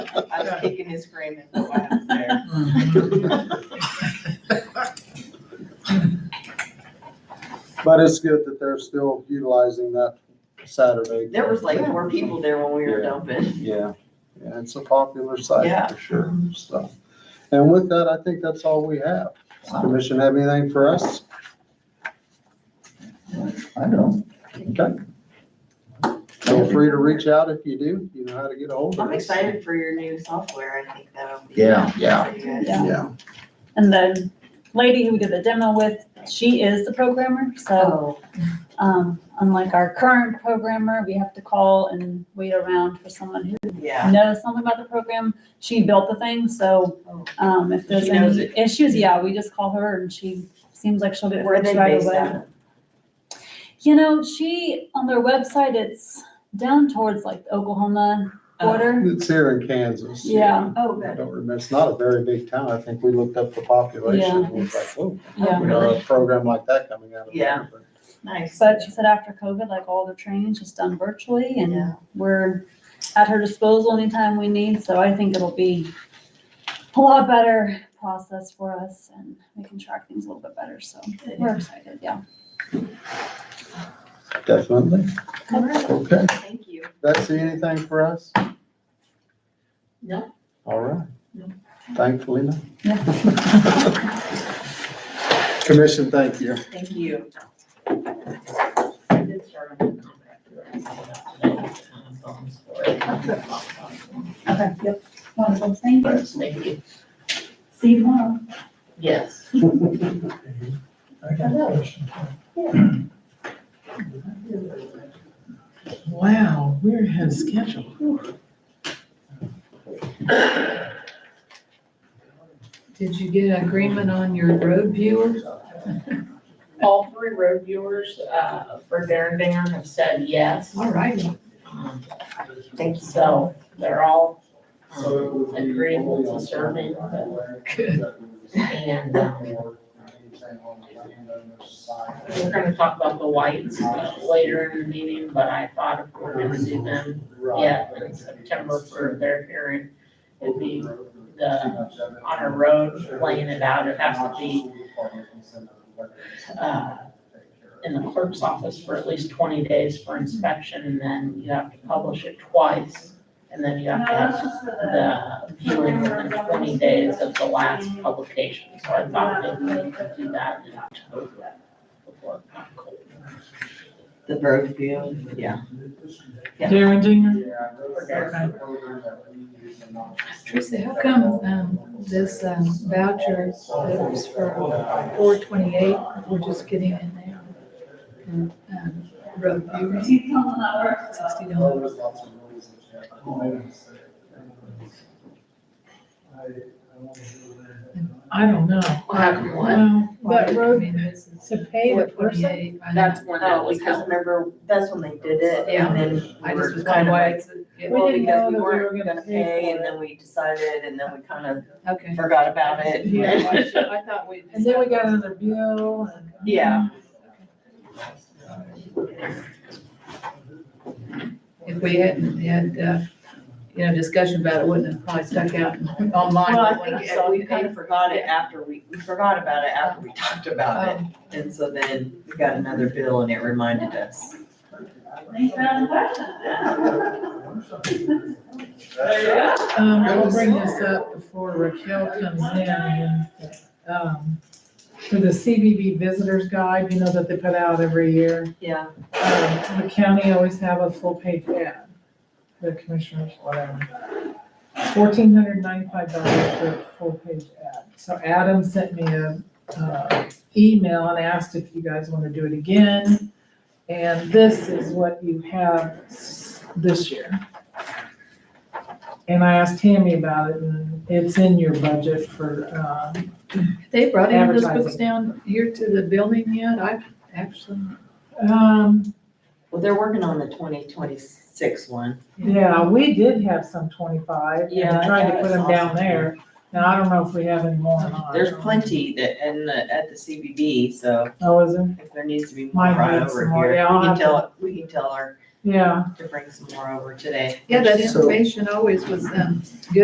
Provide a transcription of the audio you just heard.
I was kicking and screaming for while I was there. But it's good that they're still utilizing that Saturday. There was like more people there when we were Yeah. dumping. Yeah, yeah, it's a popular site Yeah. for sure, so. And with that, I think that's all we have. Does the Commission have anything for us? I know. Okay. Feel free to reach out if you do, you know how to get a hold of us. I'm excited for your new software. I think that'll be. Yeah, yeah. pretty good. Yeah. Yeah, And the lady who we did the demo with, she is the programmer, so, So, Oh. um, unlike our current programmer, we have to call and wait around for someone who yeah, knows something about the program. She built the thing, so, um, if there's Oh. She knows any issues, yeah, we just call her and she seems like she'll get where they fixed right based away. out of. You know, she, on their website, it's down towards like Oklahoma border. it's here in Kansas. Yeah. Oh, I good. don't remember, it's not a very big town, I think we looked up the population, Yeah. and it was like, whoa, Oh. Yeah. we know a program like that coming out of Yeah. there. but- Nice. But she said after COVID, like all the training's just done virtually Yeah. and we're at her disposal anytime we need, so I think it'll be a lot better process for us and we can track things a little bit better, so we're excited, yeah. Definitely. All right. Okay, Thank you. Betsy, anything for us? No. All right. No. Thankfully, no. Yeah. Commission, thank you. Thank you. I did start on the contract. Okay, yep. Wonderful, thank you. Thank you. See you tomorrow. Yes. Wow, we're ahead of schedule. Did you get an agreement on your road viewers? All three road viewers uh, for Darren Darren have said yes. All right. Thank you. So they're all um, agreeable to serving Good. and um, we're gonna talk about the whites uh, later in the meeting, but I thought if we're gonna do them yet in September for their hearing, it'd be the, on a road, laying it out, it'd have to be uh, in the clerk's office for at least twenty days for inspection, and then you have to publish it twice. And then you have to have the viewing within twenty days of the last publication, so I thought maybe we could do that in October. before it got cold. The bird view, yeah. Darren Dinger? Teresa, how come, um, this um, voucher that was for four twenty-eight, we're just getting in there? And, um, Road viewers, sixty dollars. I don't know. How come what? Well, But road, to pay the person? That's when that was Oh, Because held. remember, that's when they did it Yeah. and then. I we were just was kind kind of like, of Well, didn't know because we that we were weren't gonna gonna pay pay for and it. then we decided and then we kind of like, okay. forgot about it. Yeah. I thought we. And then we got another bill and. Yeah. If we hadn't had, uh, you know, discussion about it, wouldn't have probably stuck out online. Well, I but when think saw we it, kind of forgot it after we, we forgot about it after we talked about it. um, And so then we got another bill and it reminded us. Um, I will bring this up before Raquel comes in and, um, for the CBB Visitors Guide, you know, that they put out every year. Yeah. um, the county always have a full page ad, the commissioners, whatever. Fourteen hundred ninety-five dollars for a full page ad. So Adam sent me a, uh, email and asked if you guys wanna do it again. And this is what you have s- this year. And I asked Tammy about it and it's in your budget for, um, They brought any of those books Advertising. down here to the building yet? I actually, um, Well, they're working on the twenty twenty-six one. yeah, we did have some twenty-five Yeah, and I tried thought to put it was them down awesome. there. Now, I don't know if we have any more or not. There's plenty that, in the, at the CBB, so Oh, is there? if there needs to be more Might brought need over some more. here, we Yeah, I'll can have to- tell, we can tell her Yeah. to bring some more over today. yeah, that So- information always was, um,